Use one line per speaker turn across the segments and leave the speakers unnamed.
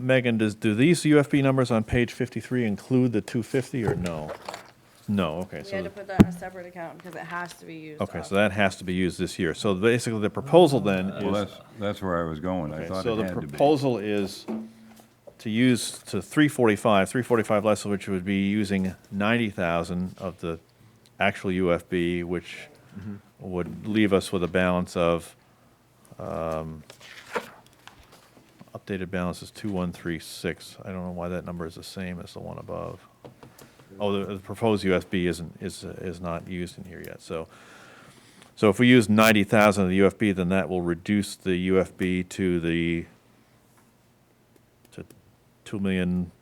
Megan, does, do these UFB numbers on page 53 include the 250 or no? No, okay,
We
so,
had to
the-
put that in a separate account because it has to be used.
okay, so
off.
that has to be used this year. So basically, the proposal then is.
Well, that's, that's where I was going. I
Okay,
thought
So
it
the
had to be.
proposal is to use to three forty-five, three forty-five less, which would be using ninety thousand of the actual UFB, which
Mm-hmm.
would leave us with a balance of, um, updated balance is two one three six. I don't know why that number is the same as the one above. Oh, the, the proposed UFB isn't, is, is not used in here yet, so. So if we use ninety thousand of the UFB, then that will reduce the UFB to the, to two million,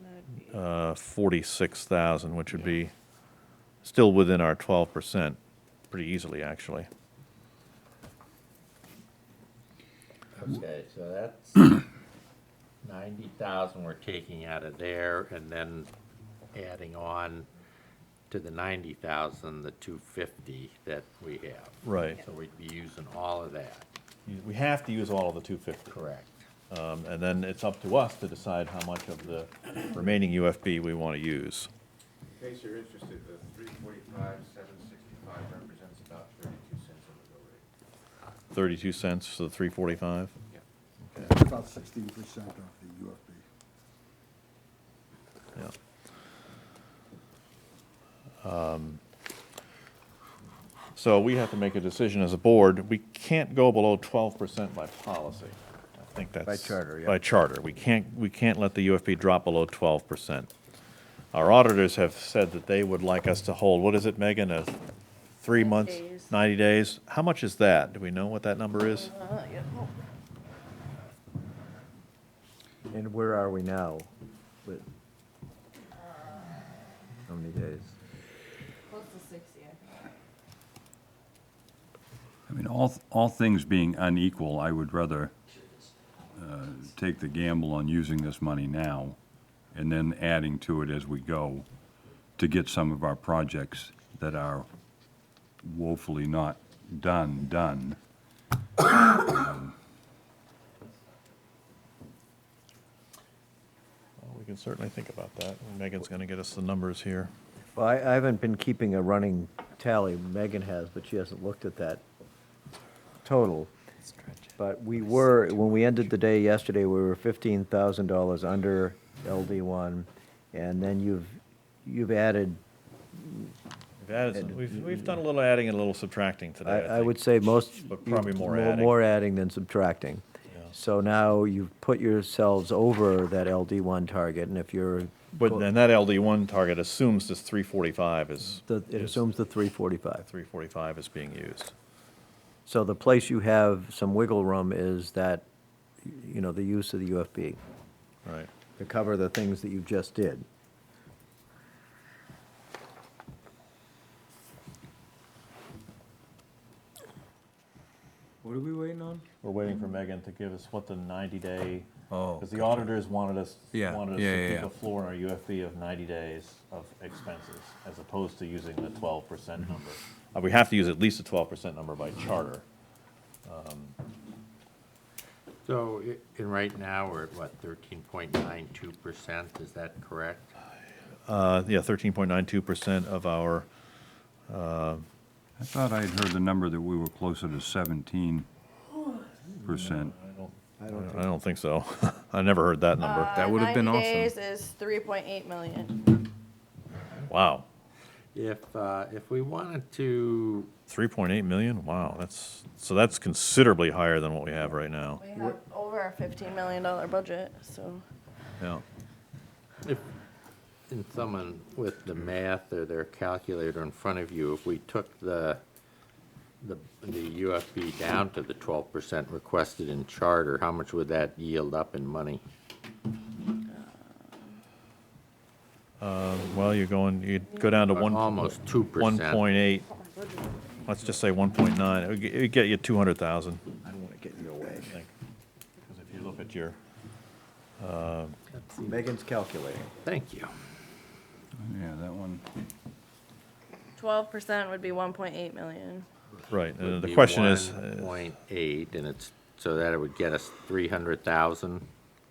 That'd be-
uh, forty-six thousand, which would be still within our twelve percent, pretty easily, actually.
Okay, so that's ninety thousand we're taking out of there and then adding on to the ninety thousand, the two fifty that we have.
Right.
So we'd be using all of that.
We have to use all of the two fifty.
Correct.
Um, and then it's up to us to decide how much of the remaining UFB we want to use.
In case you're interested, the three forty-five, seven sixty-five represents about thirty-two cents on the bill rate.
Thirty-two cents to the three forty-five?
About sixteen percent of the UFB.
Yeah. Um, So we have to make a decision as a board. We can't go below twelve percent by policy. I think that's.
charter, yeah.
By charter. We can't, we can't let the UFP drop below twelve percent. Our auditors have said that they would like us to hold, what is it, Megan, a three months?
days.
Ninety days? How much is that? Do we know what that number is?
Uh, yeah, well,
And where are we now? With- How many days?
Close to sixty, I think.
I mean, all, all things being unequal, I would rather uh, take the gamble on using this money now and then adding to it as we go to get some of our projects that are woefully not done, done.
Well, We can certainly think about that. Megan's gonna get us the numbers here.
Well, I, I haven't been keeping a running tally. Megan has, but she hasn't looked at that total. But we were, when we ended the day yesterday, we were fifteen thousand dollars under LD one. And then you've, you've added,
We've added some- we've, we've done a little adding and a little subtracting today.
I, I
think.
would say most.
But probably
you-
more adding.
More adding than subtracting.
Yeah.
So now you've put yourselves over that LD one target, and if you're.
But then that LD one target assumes this three forty-five is,
The- It assumes the 345.
three forty-five is being used.
So the place you have some wiggle room is that, you know, the use of the UFB
Right.
to cover the things that you just did.
What are we waiting on?
We're waiting for Megan to give us what the ninety-day,
Oh,
because the auditors wanted us,
Yeah,
wanted us
yeah,
to
yeah,
keep
yeah.
a floor on our UFB of ninety days of expenses, as opposed to using the twelve percent number. Uh, We have to use at least a twelve percent number by charter.
So, i- and right now, we're at what, thirteen point nine two percent, is that correct?
Uh, yeah, thirteen point nine two percent of our,
I thought I had heard the number that we were closer to seventeen percent.
I don't think so. I never heard that number.
That
Uh,
would have been
90
awesome.
days is three point eight million.
Wow.
If, uh, if we wanted to,
3.8 million? Wow, that's, so that's considerably higher than what we have right now.
We have over a fifteen million dollar budget, so.
Yeah.
If, and someone with the math or their calculator in front of you, if we took the, the, the UFB down to the twelve percent requested in charter, how much would that yield up in money?
Well, you're going, you'd go down to one.
Almost 2%.
1.8, let's just say 1.9. It would get- it would get you 200,000.
I don't want to get in your way.
Because if you look at your,
Megan's calculating.
Thank you.
Yeah, that one.
Twelve percent would be one point eight million.
right, and
Would
Uh, the
be
question is, uh,
One point eight, and it's, so that it would get us three hundred thousand